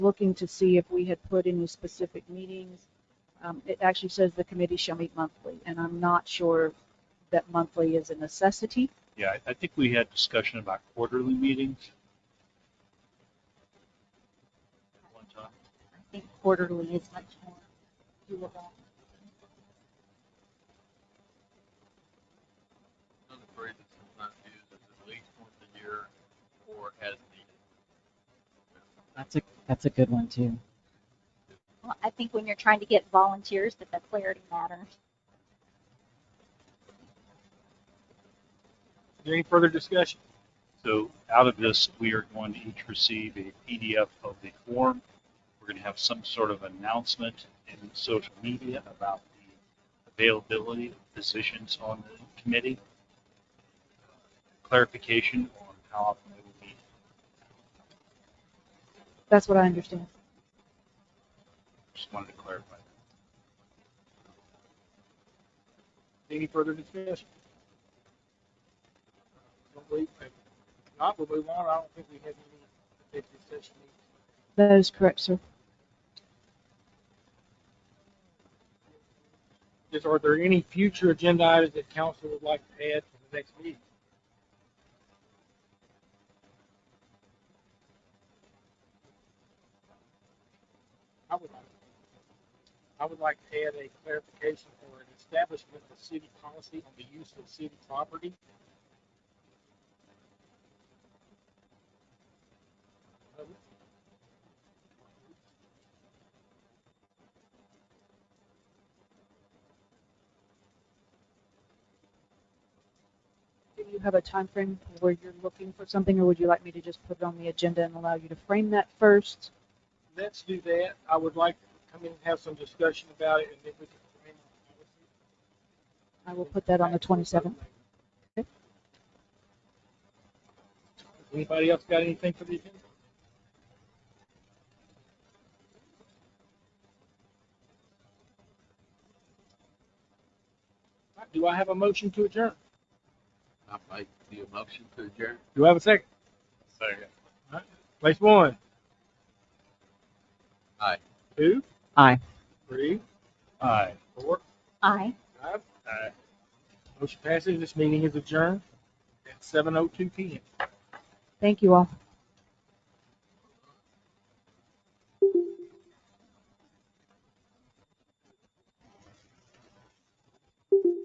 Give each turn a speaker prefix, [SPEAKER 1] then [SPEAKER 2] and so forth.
[SPEAKER 1] looking to see if we had put any specific meetings. Um, It actually says the committee shall meet monthly, and I'm not sure that monthly is a necessity.
[SPEAKER 2] Yeah, I- I think we had discussion about quarterly meetings. At one time.
[SPEAKER 3] I think quarterly is much more doable.
[SPEAKER 4] Another phrase that's sometimes used is at least once a year or as needed.
[SPEAKER 5] That's a that's a good one too.
[SPEAKER 3] Well, I think when you're trying to get volunteers, that the clarity matters.
[SPEAKER 6] Is there Any further discussion?
[SPEAKER 2] So out of this, we are going to each receive a PDF of the form. We're going to have some sort of announcement in social media about the availability of positions on the committee. Clarification on how often they will meet.
[SPEAKER 1] That's what I understand.
[SPEAKER 2] Just wanted to clarify.
[SPEAKER 6] Any further discussion? Don't believe, if not, we'll move on. I don't think we have any executive session needs.
[SPEAKER 1] That is correct, sir.
[SPEAKER 6] Is, are there any future agenda items that council would like to add to the next meeting? I would like, I would like to add a clarification for an establishment of city policy on the use of city property. Uh,
[SPEAKER 1] Do you have a time frame where you're looking for something, or would you like me to just put it on the agenda and allow you to frame that first?
[SPEAKER 6] Let's do that. I would like to come in and have some discussion about it and then we can. frame the policy.
[SPEAKER 1] I will put that on the 27th. Okay.
[SPEAKER 6] Anybody else got anything for the agenda? All right, Do I have a motion to adjourn?
[SPEAKER 4] I make the motion to adjourn.
[SPEAKER 6] Do I have a second?
[SPEAKER 2] Second.
[SPEAKER 6] Place one,
[SPEAKER 4] Aye.
[SPEAKER 6] two,
[SPEAKER 5] Aye.
[SPEAKER 6] three,
[SPEAKER 2] Aye.
[SPEAKER 6] four,
[SPEAKER 3] Aye.
[SPEAKER 6] five.
[SPEAKER 2] Aye.
[SPEAKER 6] Motion passes. This meeting is adjourned at seven oh two P M.
[SPEAKER 1] Thank you all.